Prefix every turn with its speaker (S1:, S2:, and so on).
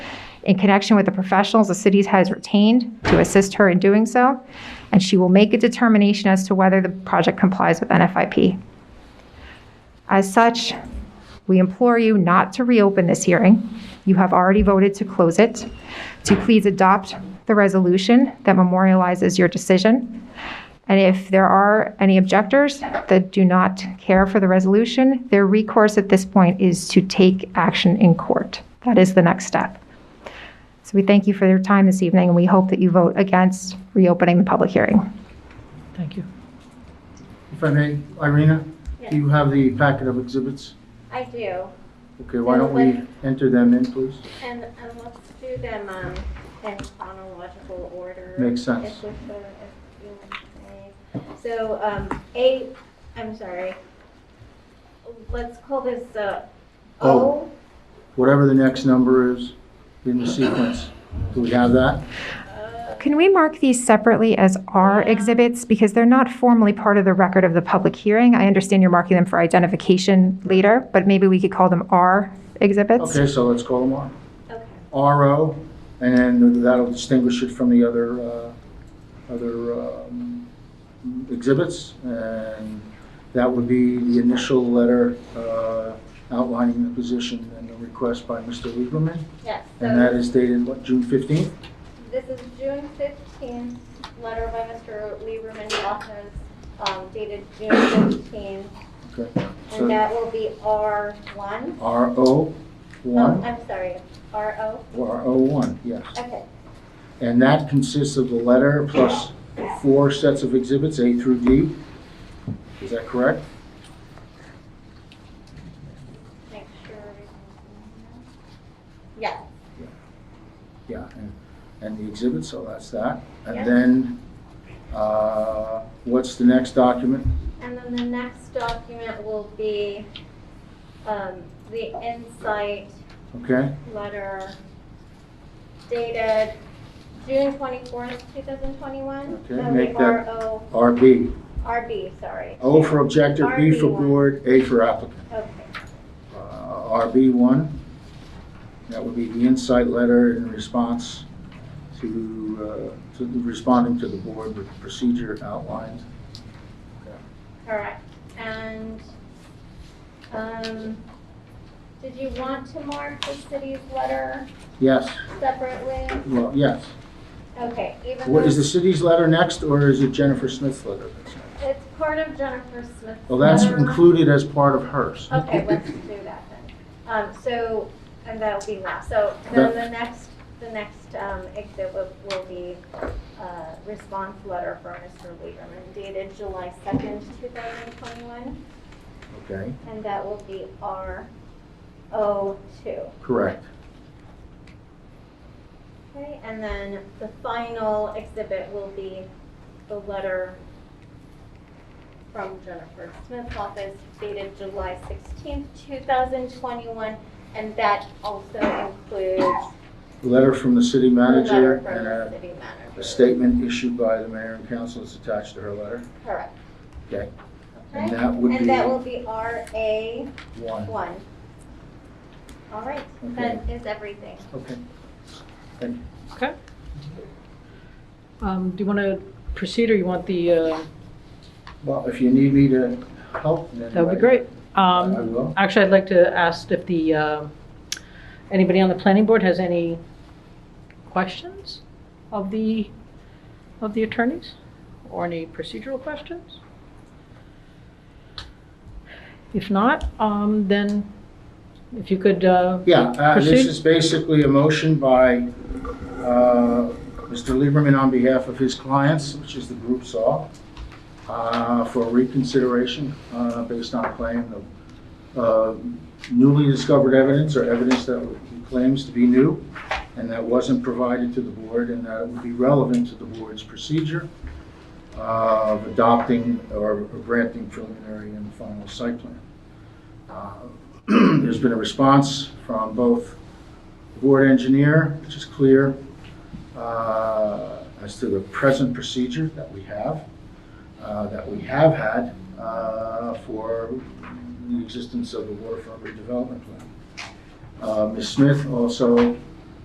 S1: in connection with the professionals the city has retained to assist her in doing so, and she will make a determination as to whether the project complies with NFIP. As such, we implore you not to reopen this hearing. You have already voted to close it. To please adopt the resolution that memorializes your decision. And if there are any objectors that do not care for the resolution, their recourse at this point is to take action in court. That is the next step. So we thank you for your time this evening, and we hope that you vote against reopening the public hearing.
S2: Thank you.
S3: If I may, Irina, do you have the packet of exhibits?
S4: I do,
S3: Okay, why don't we enter them in, please?
S4: and, and let's do them, um, in chronological order.
S3: Makes sense.
S4: if we could, if you would, please. So, um, A, I'm sorry, let's call this, uh,
S3: O.
S4: O.
S3: Oh. Whatever the next number is in the sequence. Do we have that?
S4: Uh,
S1: Can we mark these separately as R exhibits? Because they're not formally part of the record of the public hearing. I understand you're marking them for identification later, but maybe we could call them R exhibits?
S3: Okay, so let's call them R.
S4: Okay,
S3: RO, and then that'll distinguish it from the other, uh, other um, exhibits. And that would be the initial letter uh, outlining the position and the request by Mr. Lieberman.
S4: yes,
S3: And that
S4: so
S3: is dated, what, June 15th?
S4: this is June fifteenth, letter by Mr. Lieberman Loftus, um, dated June fifteenth,
S3: Okay.
S4: and uh,
S3: So
S4: that will be R one.
S3: RO,
S4: Oh,
S3: 1,
S4: I'm sorry, R O,
S3: or RO1, yes.
S4: okay.
S3: And that consists of the letter plus four sets of exhibits, A through D. Is that correct?
S4: Make sure. everything's in there.
S3: Yeah, and- and the exhibit, so that's that.
S4: Yeah.
S3: And then, uh, what's the next document?
S4: Yeah, and then the next document will be, um, the insight
S3: Okay,
S4: letter dated June twenty-fourth, two thousand twenty-one.
S3: Okay, make that- Oh.
S4: RO,
S3: RB.
S4: RB, sorry,
S3: O for objector, B for board, A for applicant.
S4: okay,
S3: Uh, RB1, that would be the insight letter in response to, uh, to the- responding to the board with the procedure outlined.
S4: correct. And, um, did you want to mark the city's letter
S3: Yes,
S4: separately?
S3: well, yes.
S4: Okay, even though.
S3: What, is the city's letter next, or is it Jennifer Smith's letter? that's next?
S4: It's part of Jennifer Smith's.
S3: Well, Oh, that's
S4: letter.
S3: included as part of hers.
S4: Okay, let's do that then. Um, so, and that'll be last. So then the next, the next, um, exhibit will be, uh, response letter from Mr. Lieberman dated July second, two thousand twenty-one,
S3: Okay,
S4: and that will be R O two.
S3: correct.
S4: Okay, and then the final exhibit will be the letter from Jennifer Smith's office dated July sixteenth, two thousand twenty-one, and that also includes
S3: Letter from the city
S4: the
S3: manager
S4: letter
S3: and
S4: from the
S3: a-
S4: city
S3: a
S4: manager.
S3: statement issued by the mayor and council is attached to her letter.
S4: Correct.
S3: Okay. And
S4: Okay,
S3: that would
S4: and that will
S3: be
S4: be RA
S3: one.
S4: one. All right, that is everything.
S3: Okay.
S2: Okay. Um, Do you want to proceed, or you want the, uh,
S3: Well, if you need me to help in any
S2: that would be
S3: way,
S2: great.
S3: I
S2: Um,
S3: I will.
S2: Actually, I'd like to ask if the, uh, anybody on the planning board has any questions of the, of the attorneys? Or any procedural questions? If not, um, then if you could, uh,
S3: Yeah, uh, this
S2: Proceed.
S3: is basically a motion by uh, Mr. Lieberman on behalf of his clients, which is the group SAW, uh, for reconsideration uh, based on a claim of uh, newly discovered evidence or evidence that he claims to be new and that wasn't provided to the board and that it would be relevant to the board's procedure of adopting or granting preliminary and final site plan. Uh, There's been a response from both the board engineer, which is clear, uh, as to the present procedure that we have, uh, that we have had uh, for the existence of the waterfront redevelopment plan. Uh, Ms. Smith also